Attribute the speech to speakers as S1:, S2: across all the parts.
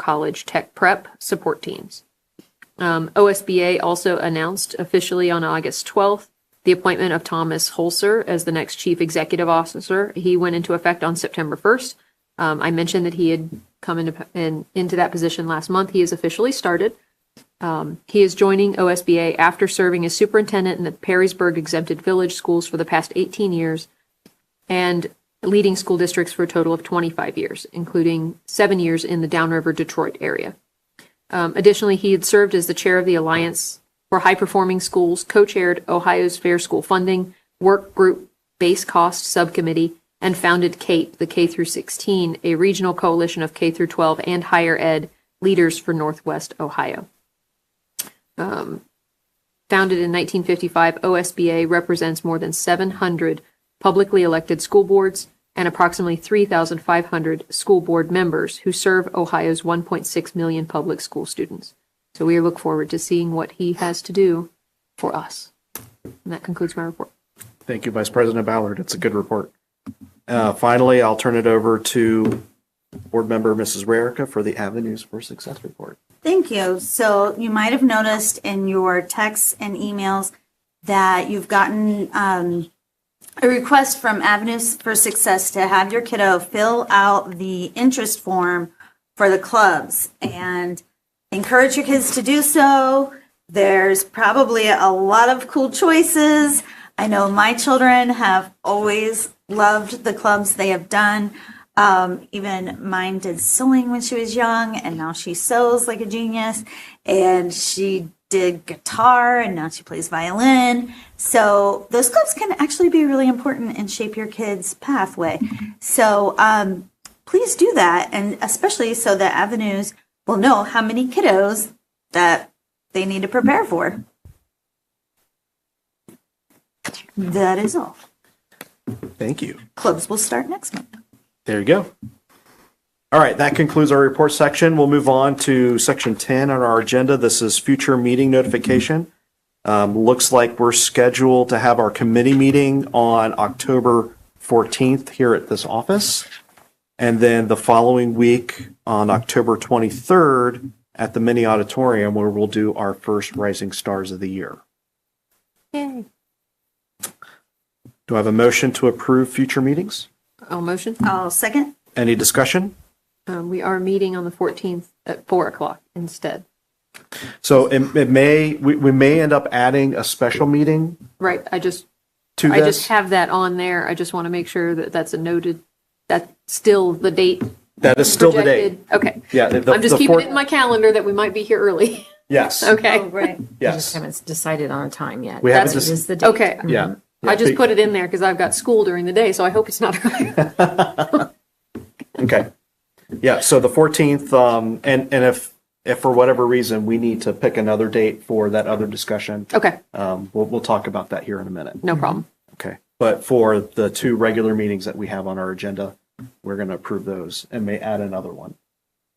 S1: College Tech Prep support teams. Um, OSBA also announced officially on August 12th the appointment of Thomas Holzer as the next Chief Executive Officer. He went into effect on September 1st. Um, I mentioned that he had come into, in, into that position last month. He has officially started. Um, he is joining OSBA after serving as superintendent in the Perrysburg Exempted Village Schools for the past 18 years and leading school districts for a total of 25 years, including seven years in the Downriver Detroit area. Um, additionally, he had served as the chair of the Alliance for High Performing Schools, co-chaired Ohio's Fair School Funding Work Group Base Cost Subcommittee, and founded CAPE, the K through 16, a regional coalition of K through 12 and higher ed leaders for Northwest Ohio. Um, founded in 1955, OSBA represents more than 700 publicly elected school boards and approximately 3,500 school board members who serve Ohio's 1.6 million public school students. So we look forward to seeing what he has to do for us. And that concludes my report.
S2: Thank you, Vice President Ballard. It's a good report. Uh, Finally, I'll turn it over to Board Member Mrs. Rarica for the Avenues for Success report.
S3: Thank you. So you might have noticed in your texts and emails that you've gotten um, a request from Avenues for Success to have your kiddo fill out the interest form for the clubs and encourage your kids to do so. There's probably a lot of cool choices. I know my children have always loved the clubs they have done. Um, even mine did sewing when she was young, and now she sews like a genius. And she did guitar, and now she plays violin. So those clubs can actually be really important and shape your kids' pathway. So um, please do that, and especially so that avenues will know how many kiddos that they need to prepare for. That is all.
S2: Thank you.
S3: Clubs will start next month.
S2: There you go. All right, that concludes our report section. We'll move on to section 10 on our agenda. This is future meeting notification. Um, Looks like we're scheduled to have our committee meeting on October 14th here at this office. And then the following week on October 23rd at the mini auditorium where we'll do our first Rising Stars of the Year.
S1: Yay.
S2: Do I have a motion to approve future meetings?
S1: All motion.
S3: I'll second.
S2: Any discussion?
S1: Um, we are meeting on the 14th at 4 o'clock instead.
S2: So it, it may, we, we may end up adding a special meeting
S1: Right. I just,
S2: to
S1: I just
S2: this.
S1: have that on there. I just want to make sure that that's a noted, that's still the date.
S2: That is still the date.
S1: projected. Okay.
S2: Yeah. the-
S1: I'm just
S2: the
S1: keeping
S2: fourth-
S1: it in my calendar that we might be here early.
S2: Yes,
S1: Okay.
S3: Oh, right.
S4: just
S2: yes.
S4: haven't decided on a time yet.
S2: We haven't
S4: But it
S2: dec-
S4: is the date.
S1: Okay.
S2: Yeah.
S1: I just put it in there because I've got school during the day, so I hope it's not early.
S2: Okay. Yeah, so the 14th, um, and, and if, if for whatever reason, we need to pick another date for that other discussion,
S1: Okay,
S2: um, we'll, we'll talk about that here in a minute.
S1: no problem.
S2: Okay. But for the two regular meetings that we have on our agenda, we're going to approve those and may add another one.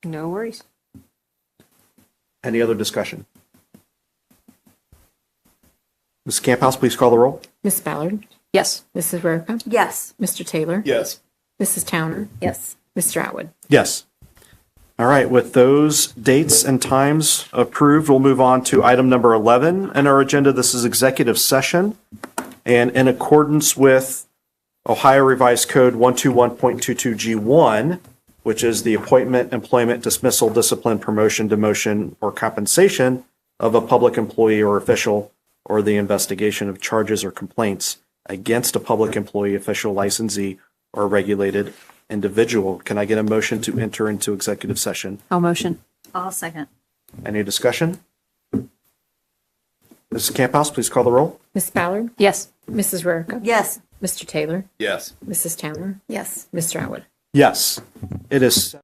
S1: No worries.
S2: Any other discussion? Ms. Camp House, please call the roll.
S4: Miss Ballard,
S1: Yes.
S4: Mrs. Rarica,
S3: Yes.
S4: Mr. Taylor,
S2: Yes.
S4: Mrs. Towner,
S3: Yes.
S4: Mr. Atwood.
S2: Yes. All right, with those dates and times approved, we'll move on to item number 11 in our agenda. This is executive session. And in accordance with Ohio Revised Code 121.22G1, which is the appointment, employment, dismissal, discipline, promotion, demotion, or compensation of a public employee or official, or the investigation of charges or complaints against a public employee, official, licensee, or regulated individual. Can I get a motion to enter into executive session?
S1: I'll motion.
S3: I'll second.
S2: Any discussion? Mrs. Camp House, please call the roll.
S4: Miss Ballard,
S1: Yes.
S4: Mrs. Rarica,
S3: Yes.
S4: Mr. Taylor,
S5: Yes.
S4: Mrs. Towner,
S3: Yes.
S4: Mr. Atwood.
S2: Yes, it is